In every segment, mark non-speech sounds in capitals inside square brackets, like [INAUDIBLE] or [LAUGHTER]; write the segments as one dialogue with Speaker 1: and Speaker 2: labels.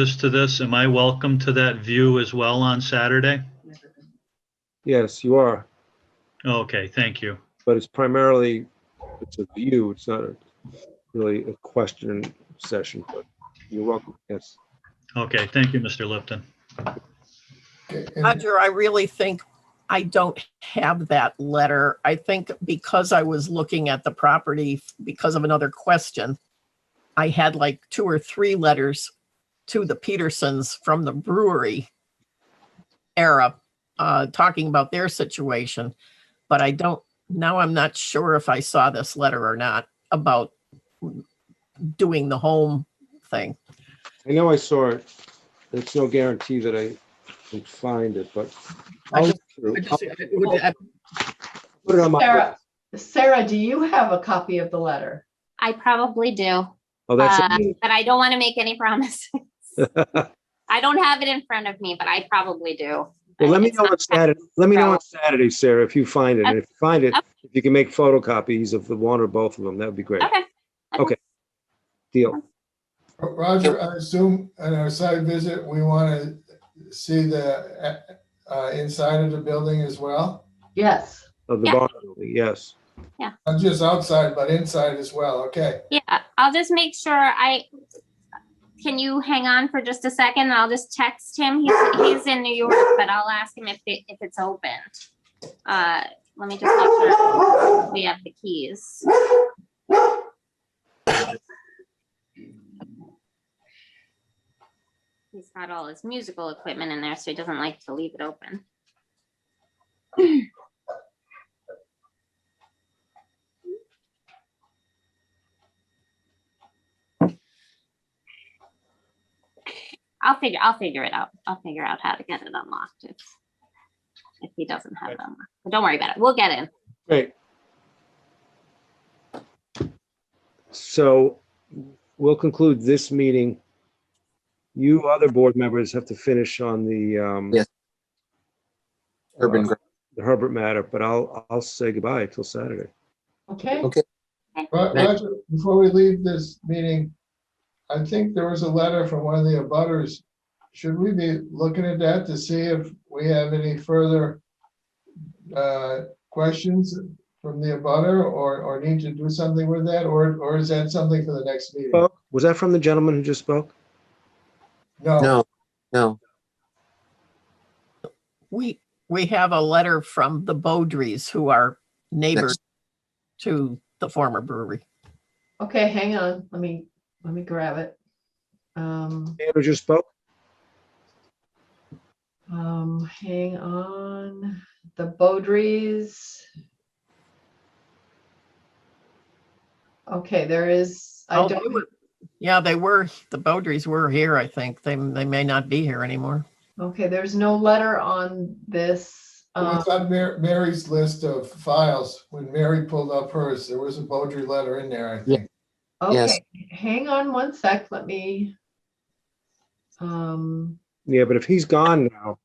Speaker 1: this to this, am I welcome to that view as well on Saturday?
Speaker 2: Yes, you are,
Speaker 1: Okay, thank you.
Speaker 2: but it's primarily, it's a view, it's not a- really a question session, but you're welcome, yes.
Speaker 1: Okay, thank you, Mr. Lipton.
Speaker 3: And
Speaker 4: Roger, I really think I don't have that letter. I think because I was looking at the property because of another question, I had like two or three letters to the Petersons from the brewery era, uh, talking about their situation. But I don't, now I'm not sure if I saw this letter or not about doing the home thing.
Speaker 2: I know I saw it, it's no guarantee that I can find it, but
Speaker 4: I
Speaker 2: I'll
Speaker 4: just-
Speaker 2: I'll
Speaker 4: I just-
Speaker 2: put it on my,
Speaker 5: Sarah, Sarah, do you have a copy of the letter?
Speaker 6: I probably do,
Speaker 2: oh,
Speaker 6: uh,
Speaker 2: that's,
Speaker 6: but I don't want to make any
Speaker 2: [LAUGHS]
Speaker 6: [LAUGHS] promises.
Speaker 2: well,
Speaker 6: I don't have it in front of me, but I probably do.
Speaker 2: let me
Speaker 6: It's
Speaker 2: know
Speaker 6: not-
Speaker 2: on Saturday, let me know on Saturday, Sarah, if you find it, and if you find it, if you can make photocopies of the one or both of them, that would be great,
Speaker 6: Okay,
Speaker 2: deal.
Speaker 3: Roger, I assume on our side visit, we want to see the uh, uh, inside of the building as well?
Speaker 5: Yes.
Speaker 2: Of the
Speaker 6: Yeah.
Speaker 2: barn, yes,
Speaker 3: Not just outside, but inside as well, okay?
Speaker 6: yeah, I'll just make sure I, can you hang on for just a second? I'll just text him. He's, he's in New York, but I'll ask him if, it- if it's open. Uh, let me just make sure we have the keys. He's got all his musical equipment in there, so he doesn't like to leave it open. I'll figure, I'll figure it out. I'll figure out how to get it unlocked if, if he doesn't have it unlocked. But Don't worry about it. We'll get in.
Speaker 2: great. So we'll conclude this meeting. You other board members have to finish on the, um,
Speaker 7: Yes. Urban, Gro-
Speaker 2: the Herbert matter, but I'll, I'll say goodbye till Saturday.
Speaker 5: Okay.
Speaker 7: okay,
Speaker 3: Ro- Roger, before we leave this meeting, I think there was a letter from one of the abutters. Should we be looking at that to see if we have any further uh, questions from the abutter or, or need to do something with that? Or, or is that something for the next meeting?
Speaker 2: Spoke? Was that from the gentleman who just spoke?
Speaker 3: No,
Speaker 7: no, no,
Speaker 4: We, we have a letter from the Bowdries who are neighbors to the former brewery.
Speaker 5: Okay, hang on. Let me, let me grab it. Um,
Speaker 2: Dan who just spoke?
Speaker 5: um, hang on. The Beaudries. Okay, there is, I
Speaker 4: Oh, they
Speaker 5: don't,
Speaker 4: were- Yeah, they were, the Bowdries were here, I think. They, they may not be here anymore.
Speaker 5: okay, there's no letter on this. uh,
Speaker 3: It's on Mar- Mary's list of files. When Mary pulled up hers, there was a Beaudry letter in there, I think.
Speaker 7: Yes.
Speaker 5: Okay, hang on one sec. Let me. Um,
Speaker 2: Yeah, but if he's gone now,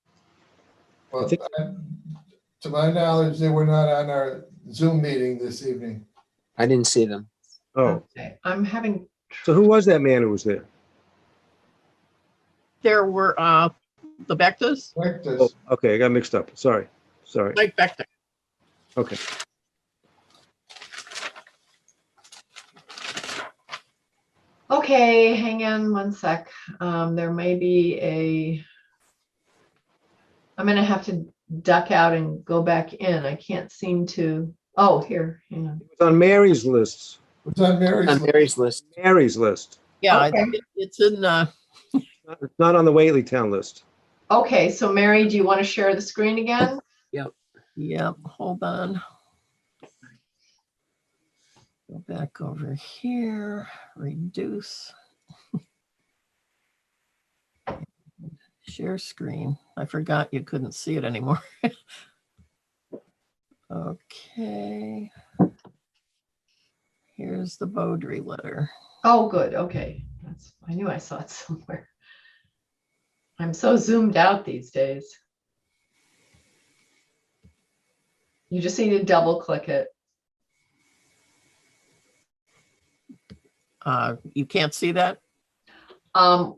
Speaker 2: I
Speaker 3: Well,
Speaker 2: think-
Speaker 3: I- to my knowledge, they were not on our Zoom meeting this evening.
Speaker 7: I didn't see them.
Speaker 2: oh,
Speaker 5: okay, I'm having,
Speaker 2: so who was that man who was there?
Speaker 4: There were, uh, the Bectas,
Speaker 3: Like this.
Speaker 2: Oh, okay, I got mixed up. Sorry, sorry.
Speaker 4: Mike Becta.
Speaker 2: Okay.
Speaker 5: okay, hang on one sec. Um, there may be a. I'm gonna have to duck out and go back in. I can't seem to, oh, here, hang on.
Speaker 2: It was on Mary's list,
Speaker 3: It's on Mary's
Speaker 7: On
Speaker 3: list.
Speaker 7: Mary's list,
Speaker 2: Mary's list,
Speaker 4: Yeah,
Speaker 5: Okay.
Speaker 4: it- it's in, uh,
Speaker 2: Not- it's not on the Whately Town list.
Speaker 5: Okay, so Mary, do you want to share the screen again?
Speaker 4: yeah, hold on. Go back over here, reduce. Share screen. I forgot you couldn't see it anymore. [LAUGHS] Okay. Here's the Beaudry letter.
Speaker 5: Oh, good, okay. That's, I knew I saw it [LAUGHS] somewhere. I'm so zoomed out these days. You just need to double click it.
Speaker 4: Uh, you can't see that?
Speaker 5: Um,